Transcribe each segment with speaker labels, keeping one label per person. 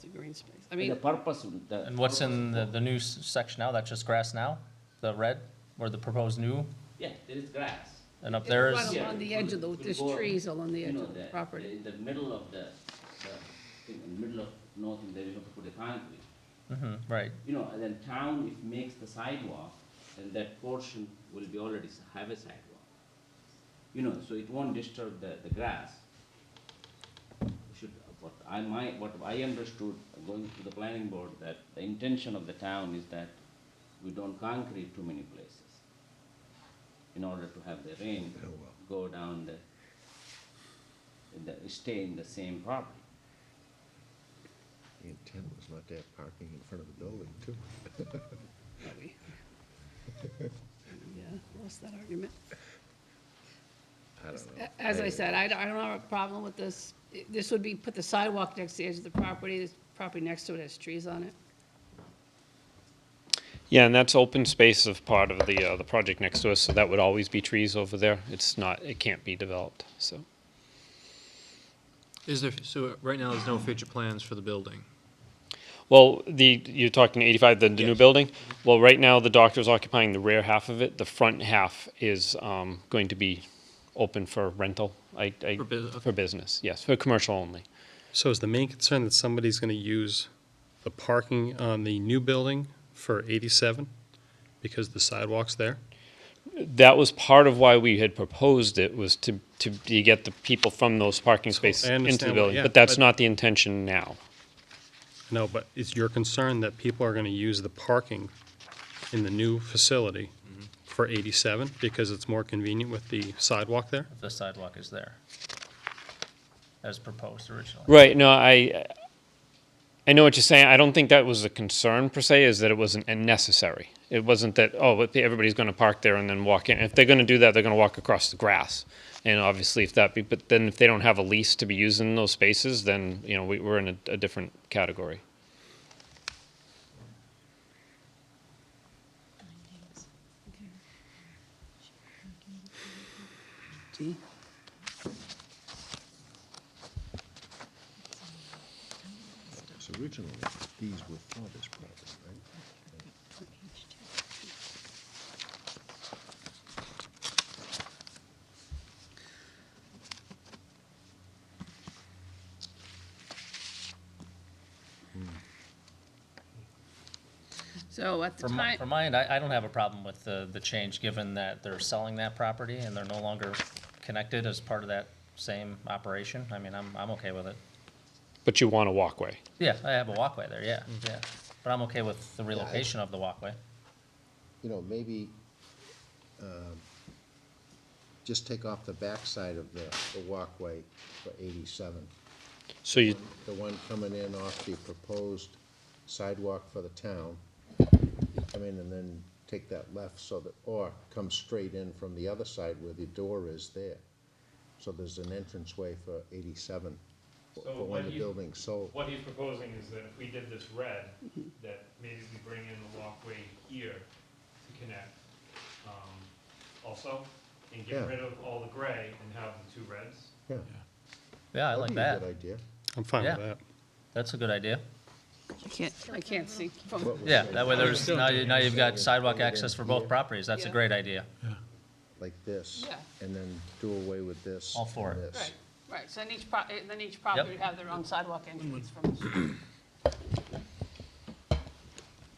Speaker 1: the green space. I
Speaker 2: And the
Speaker 1: mean,
Speaker 2: purpose, the.
Speaker 3: And what's in the, the new s- section now? That's just grass now? The red, or the proposed new?
Speaker 2: Yeah, there is grass.
Speaker 3: And up
Speaker 1: It's
Speaker 3: there
Speaker 1: right
Speaker 3: is,
Speaker 1: Yeah. along the edge of the-
Speaker 2: It will
Speaker 1: there's
Speaker 2: go,
Speaker 1: trees along the
Speaker 2: you
Speaker 1: edge
Speaker 2: know,
Speaker 1: of the property.
Speaker 2: In the middle of the, the, thing, in the middle of nothing, there you have to put a concrete.
Speaker 3: hmm right.
Speaker 2: You know, and then town, if makes the sidewalk, then that portion will be already s- have a sidewalk. You know, so it won't disturb the, the grass. Should, what I might, what I understood uh, going to the planning board, that the intention of the town is that we don't concrete too many places in order to have the rain
Speaker 4: Oh,
Speaker 2: go down the, in the, stay in the same property.
Speaker 4: The intent was not to have parking in front of the building, too.
Speaker 1: we- yeah, lost that argument.
Speaker 4: I don't know.
Speaker 1: A- As I said, I don't, I don't have a problem with this. I- This would be, put the sidewalk next to the edge of the property, this property next to it has trees on it.
Speaker 5: Yeah, and that's open space of part of the, uh, the project next to us, so that would always be trees over there. It's not, it can't be developed, so.
Speaker 6: Is there, so right now, there's no future plans for the building?
Speaker 5: Well, the, you're talking eighty-five, the, the new
Speaker 6: Yes.
Speaker 5: building? Well, right now, the doctor's occupying the rear half of it. The front half is, um, going to be open for rental. I, I.
Speaker 6: For busi- okay.
Speaker 5: For business, yes, for commercial only.
Speaker 7: So is the main concern that somebody's going to use the parking on the new building for 87 because the sidewalk's there?
Speaker 5: That was part of why we had proposed it, was to, to, to get the people from those parking
Speaker 7: So, I
Speaker 5: spaces into
Speaker 7: understand
Speaker 5: the
Speaker 7: what-
Speaker 5: building.
Speaker 7: yeah,
Speaker 5: But that's
Speaker 7: but-
Speaker 5: not the intention now.
Speaker 7: No, but is your concern that people are going to use the parking in the new facility for 87 because it's more convenient with the sidewalk there?
Speaker 3: If the sidewalk is there. As proposed originally.
Speaker 5: Right. No, I I know what you're saying. I don't think that was the concern per se. Is that it wasn't necessary. It wasn't that oh but everybody's going to park there and then walk in. If they're going to do that, they're going to walk across the grass. And obviously, if that be, but then if they don't have a lease to be using those spaces, then you know we, we're in a, a different category.
Speaker 1: Gee.
Speaker 4: So Originally, these were for this property, right?
Speaker 1: So at the
Speaker 3: From my,
Speaker 1: time,
Speaker 3: from my end, I, I don't have a problem with the, the change, given that they're selling that property and they're no longer connected as part of that same operation. I mean, I'm, I'm okay with it.
Speaker 5: But you want a walkway.
Speaker 3: Yeah, I have a walkway there, yeah,
Speaker 6: Mm-hmm.
Speaker 3: yeah. But I'm okay with the relocation of the walkway.
Speaker 4: You know, maybe um, just take off the backside of the the walkway for 87.
Speaker 5: So you
Speaker 4: The one coming in off the proposed sidewalk for the town. Come in and then take that left so that, or come straight in from the other side where the door is there. So there's an entranceway for 87 for-
Speaker 8: So
Speaker 4: for
Speaker 8: what
Speaker 4: when the
Speaker 8: you-
Speaker 4: building's sold.
Speaker 8: What he's proposing is that if we did this red, that maybe we bring in the walkway here to connect, um, also, and
Speaker 4: Yeah.
Speaker 8: get rid of all the gray and have the two reds.
Speaker 4: Yeah,
Speaker 3: Yeah, I
Speaker 4: that'd
Speaker 3: like
Speaker 4: be a
Speaker 3: that.
Speaker 4: good idea.
Speaker 7: I'm fine with
Speaker 3: Yeah.
Speaker 7: that.
Speaker 3: That's a good idea.
Speaker 1: I can't, I can't see. from-
Speaker 4: What was
Speaker 3: Yeah,
Speaker 4: it?
Speaker 3: that way there's, now, you- now you've got sidewalk access for both
Speaker 4: Yeah.
Speaker 3: properties. That's a
Speaker 1: Yeah.
Speaker 3: great idea.
Speaker 4: Like this.
Speaker 1: Yeah.
Speaker 4: And then do away with this.
Speaker 3: All for
Speaker 4: and
Speaker 3: it.
Speaker 4: this.
Speaker 1: Right, right, so then each pro, then each property would have their own sidewalk entrance from the street.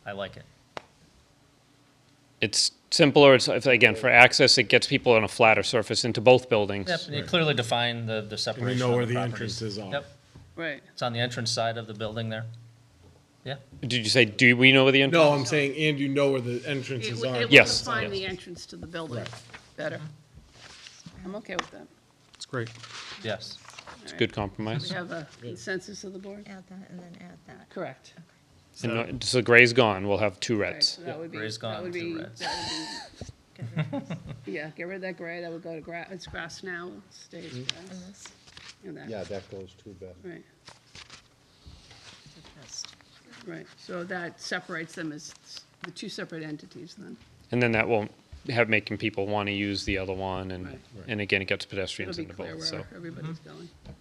Speaker 3: I like it.
Speaker 5: it's simpler. It's it's, again for access. It gets people on a flatter surface into both buildings.
Speaker 3: Yep, you clearly define the, the separation
Speaker 9: know
Speaker 3: of
Speaker 9: where the
Speaker 3: properties.
Speaker 9: entrances are.
Speaker 3: Yep,
Speaker 1: Right.
Speaker 3: it's on the entrance side of the building there. Yeah,
Speaker 5: Did you say? Do we know where the entrance?
Speaker 9: No, I'm saying, and you know where the entrances are.
Speaker 1: It would
Speaker 5: Yes.
Speaker 1: define the entrance to the building better. I'm okay with that.
Speaker 7: It's great.
Speaker 3: yes.
Speaker 5: It's a good compromise.
Speaker 1: We have a consensus of the board?
Speaker 10: Add that and then add that.
Speaker 1: Correct.
Speaker 5: And no, so gray's gone. We'll have two
Speaker 1: Okay,
Speaker 5: reds.
Speaker 1: so that would be,
Speaker 3: Gray's
Speaker 1: that
Speaker 3: gone,
Speaker 1: would
Speaker 3: two
Speaker 1: be,
Speaker 3: reds.
Speaker 1: that
Speaker 10: Get rid of this
Speaker 1: would be, yeah, get rid of that gray, that would go to grass, it's grass now, it stays
Speaker 10: and
Speaker 1: grass.
Speaker 10: this
Speaker 1: and that.
Speaker 4: Yeah, that goes too bad.
Speaker 1: Right,
Speaker 10: to trust.
Speaker 1: right, so that separates them as s- the two separate entities then.
Speaker 5: And then that won't have making people want to use the other one, and
Speaker 1: Right.
Speaker 5: and again, it gets
Speaker 1: It'll
Speaker 5: pedestrians
Speaker 1: be
Speaker 5: into
Speaker 1: clear
Speaker 5: both. So
Speaker 10: Mm-hmm.
Speaker 1: where everybody's going.